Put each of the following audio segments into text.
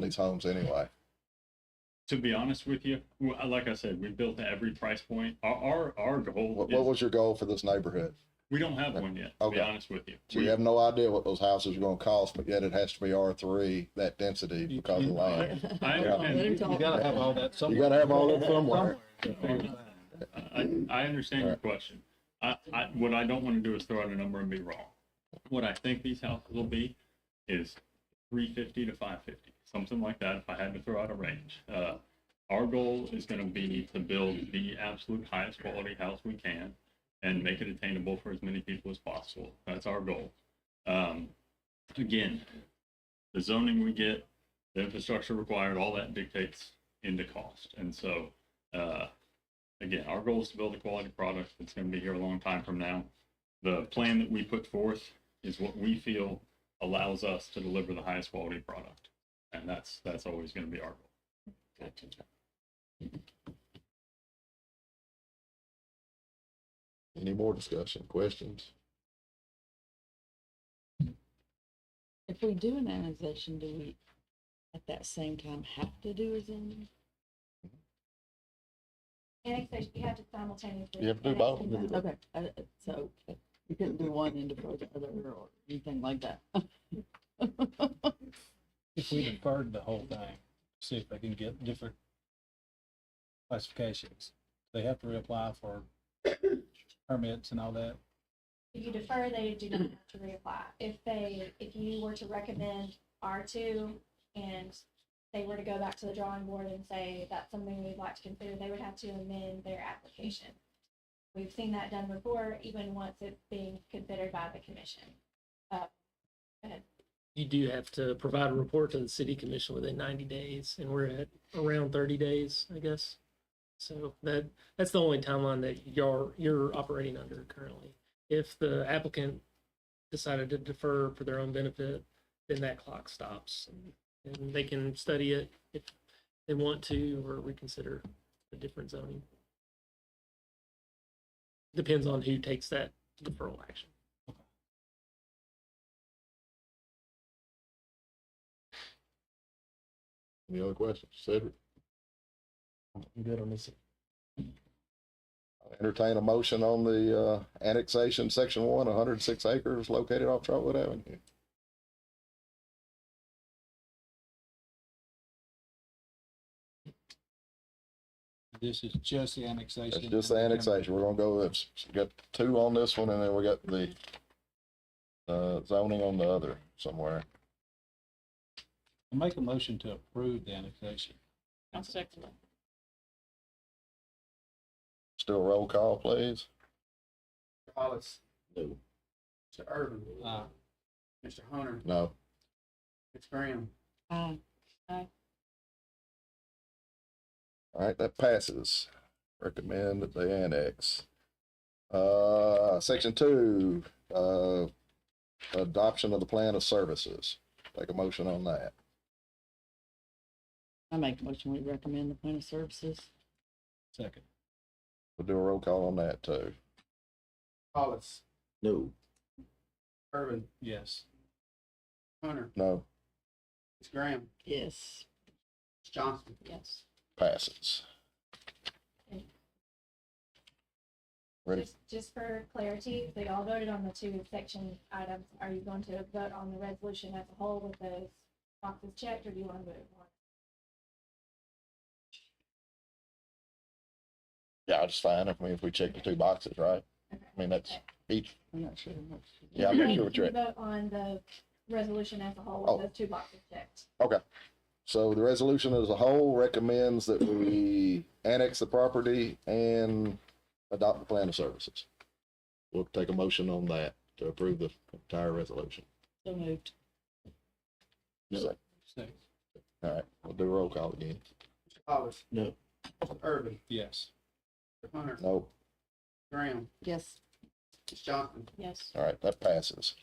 these homes anyway. To be honest with you, w- like I said, we built to every price point. Our our, our goal What, is what was your goal for this neighborhood? we don't have one yet. To Okay. be honest with you, So We- you have no idea what those houses are going to cost, but yet it has to be R three that density because of land. I, Yeah. understand- Let him talk. You gotta have all that somewhere. You gotta have all that somewhere. I, I understand your question. I, I, what I don't want to do is throw out a number and be wrong. What I think these houses will be is three fifty to five fifty, something like that, if I had to throw out a range. Uh, our goal is gonna be to build the absolute highest quality house we can and make it attainable for as many people as possible. That's our goal. Um, again, the zoning we get, the infrastructure required, all that dictates into cost. And so, uh, again, our goal is to build a quality product that's going to be here a long time from now. The plan that we put forth is what we feel allows us to deliver the highest quality product, and that's that's always going to be our goal. Any more discussion, questions? If we do an annexation, do we at that same time have to do a zoning? Annexation, you have to simultaneously. You have to do both. annex them. Okay, I- I- so uh, you couldn't do one and defer the other or anything like that. If we deferred the whole thing, see if they can get different classifications. They have to reapply for permits and all that. If you defer, they do not have to reapply. If they, if you were to recommend R two and they were to go back to the drawing board and say that's something we'd like to consider, they would have to amend their application. We've seen that done before, even once it's being considered by the commission. you do have to provide a report to the city commission within ninety days, and we're at around thirty days, I guess. So that, that's the only timeline that you're, you're operating under currently. If the applicant decided to defer for their own benefit, then that clock stops. And they can study it if they want to, or reconsider a different zoning. Depends on who takes that deferral action. Any other questions? Cedric, Good on this. I'll entertain a motion on the, uh, annexation, section one, hundred and six acres located off Trotwood Avenue. This is just the annexation. It's just the annexation. We're gonna go, with we got two on this one and then we got the, uh, zoning on the other somewhere. Make a motion to approve the annexation. I'll second that. Still roll call, please. Hollis, No. Mr. Irvin, Uh, Mr. Hunter, No. Ms. Graham. Aye. All right, that passes. Recommend that they annex. Uh, section two, uh, adoption of the plan of services. Take a motion on that. I make a motion, we recommend the plan of services. second. We'll do a roll call on that too. Hollis, No. Irvin, Yes. Hunter, No, Ms. Graham, Yes, Ms. Johnson. yes. passes. Ready? Just, just for clarity, they all voted on the two section items. Are you going to vote on the resolution as a whole with those boxes checked, or do you want to vote one? Yeah, it's fine. I mean, if we check the two boxes, right? I mean, that's each, I'm not sure. what's- yeah, I'm not sure what You you're at. vote on the resolution as a whole Oh. with those two boxes checked. So the resolution as a whole recommends that we annex the property and adopt the plan of services. We'll take a motion on that to approve the entire resolution. So moved. All Second. right, we'll do roll call again. Mr. Hollis. No. Mr. Irvin, Yes. Mr. Hunter, No, Graham, Yes, Ms. Johnson. yes. all right, that passes.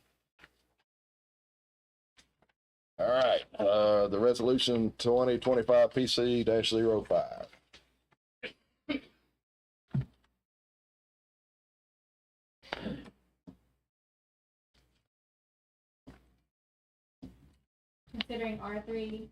All right, uh, the resolution twenty twenty-five PC dash zero five. Considering R three